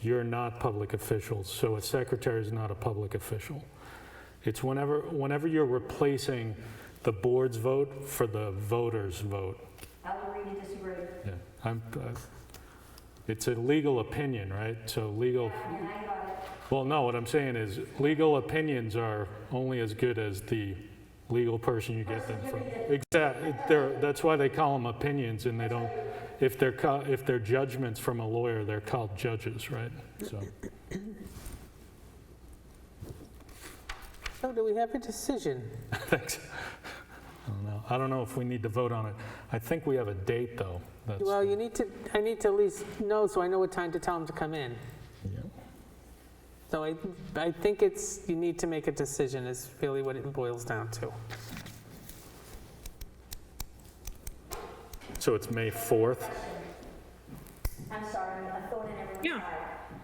you're not public officials, so a secretary is not a public official. It's whenever, whenever you're replacing the board's vote for the voter's vote. Alvarino disagreed. I'm, uh, It's a legal opinion, right? So legal, And I got it. well, no, what I'm saying is, legal opinions are only as good as the legal person you get them from. Exactly, they're, that's why they call them opinions, and they don't, if they're, ca- if they're judgments from a lawyer, they're called judges, right? So, So do we have a decision? thanks. I don't know, I don't know if we need to vote on it. I think we have a date, though. That's- Well, you need to, I need to at least know so I know what time to tell them to come in. Yeah. So I, I think it's, you need to make a decision is really what it boils down to. So it's May 4th? I'm sorry, I thought I never Yeah. replied.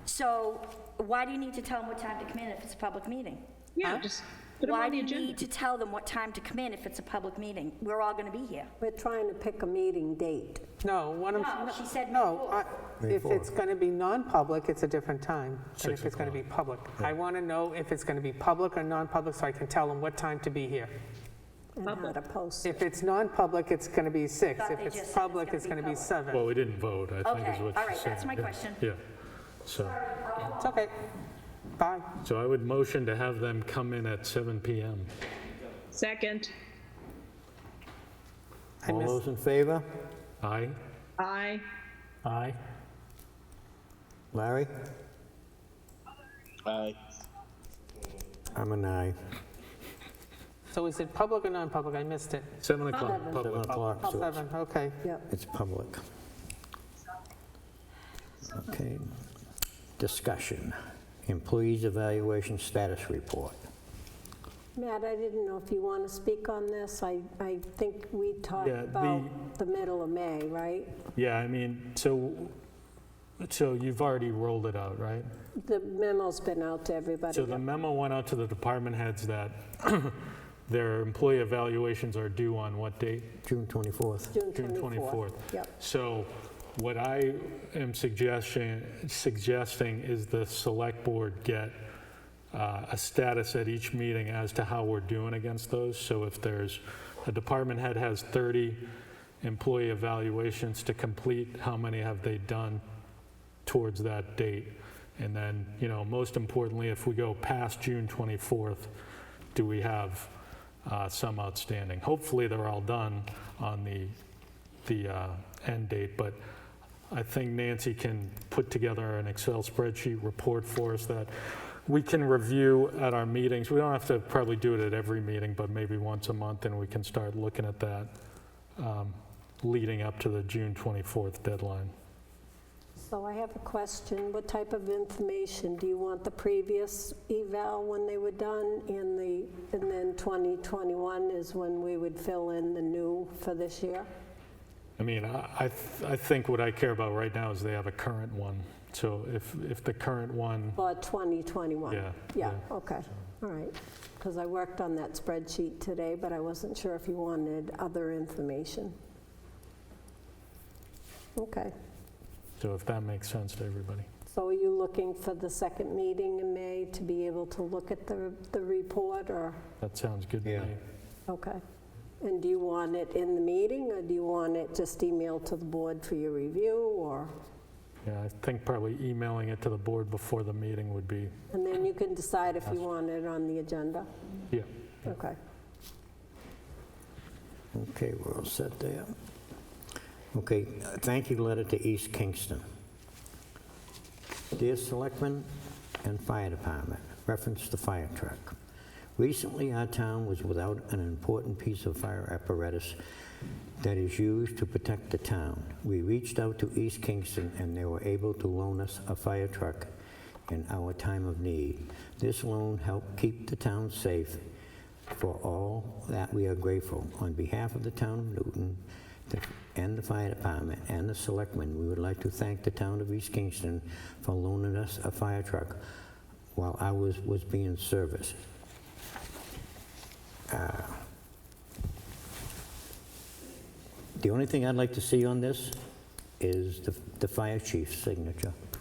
So why do you need to tell them what time to come in if it's a public meeting? Yeah, Huh? just put them Why do on the you need agenda. to tell them what time to come in if it's a public meeting? We're all going to be here. We're trying to pick a meeting date. No, what I'm, No, she said no, I- May if it's going to be non-public, it's a different time than Six if it's going to be public. I want to know if it's going to be public or non-public so I can tell them what time to be here. And how to post it. If it's non-public, it's going to be six. Thought If they just said it's it's public, gonna it's be going to be public. seven. Well, we didn't vote, I think is what Okay, you're saying. all right, that's my Yeah, question. Yeah, so, It's okay. Bye. so I would motion to have them come in at 7 PM. Second, I All missed, those in favor? Aye? aye. Aye. Larry? Aye. I'm an aye. so is it public or non-public? I missed it. 7 o'clock, Seven public. o'clock, so it's- Seven, okay. Yep. it's public. Okay. Discussion. Employees evaluation status report. Matt, I didn't know if you want to speak on this. I, I think we talked Yeah, the- about the middle of May, right? Yeah, I mean, so, so you've already rolled it out, right? The memo's been out to So everybody. the memo went out to the department heads that their employee evaluations are due on what date? June 24th. June 24th. Yep. So what I am suggestion, suggesting is the select board get uh, a status at each meeting as to how we're doing against those. So if there's, a department head has 30 employee evaluations to complete, how many have they done towards that date? And then, you know, most importantly, if we go past June 24th, do we have uh, some outstanding? Hopefully, they're all done on the the uh, end date, but I think Nancy can put together an Excel spreadsheet report for us that we can review at our meetings. We don't have to probably do it at every meeting, but maybe once a month, and we can start looking at that um, leading up to the June 24th deadline. So I have a question. What type of information? Do you want the previous eval when they were done and the, and then 2021 is when we would fill in the new for this year? I mean, I, I th- I think what I care about right now is they have a current one. So if, if the current one, For 2021? Yeah, Yeah, yeah. okay, all right. Because I worked on that spreadsheet today, but I wasn't sure if you wanted other information. Okay, so if that makes sense to everybody. so are you looking for the second meeting in May to be able to look at the, the report, or, That sounds good to Yeah. me. okay? And do you want it in the meeting, or do you want it just emailed to the board for your review, or, Yeah, I think probably emailing it to the board before the meeting would be, and then you can decide if you want it on the agenda? yeah. Okay. Okay, we're all set there. Okay, uh, thank you letter to East Kingston. Dear Selectmen and Fire Department, reference the fire truck. Recently, our town was without an important piece of fire apparatus that is used to protect the town. We reached out to East Kingston, and they were able to loan us a fire truck in our time of need. This loan helped keep the town safe. For all that, we are grateful. On behalf of the town of Newton the- and the fire department and the selectmen, we would like to thank the town of East Kingston for loaning us a fire truck while I was was being serviced. Uh, The only thing I'd like to see on this is the the fire chief's signature.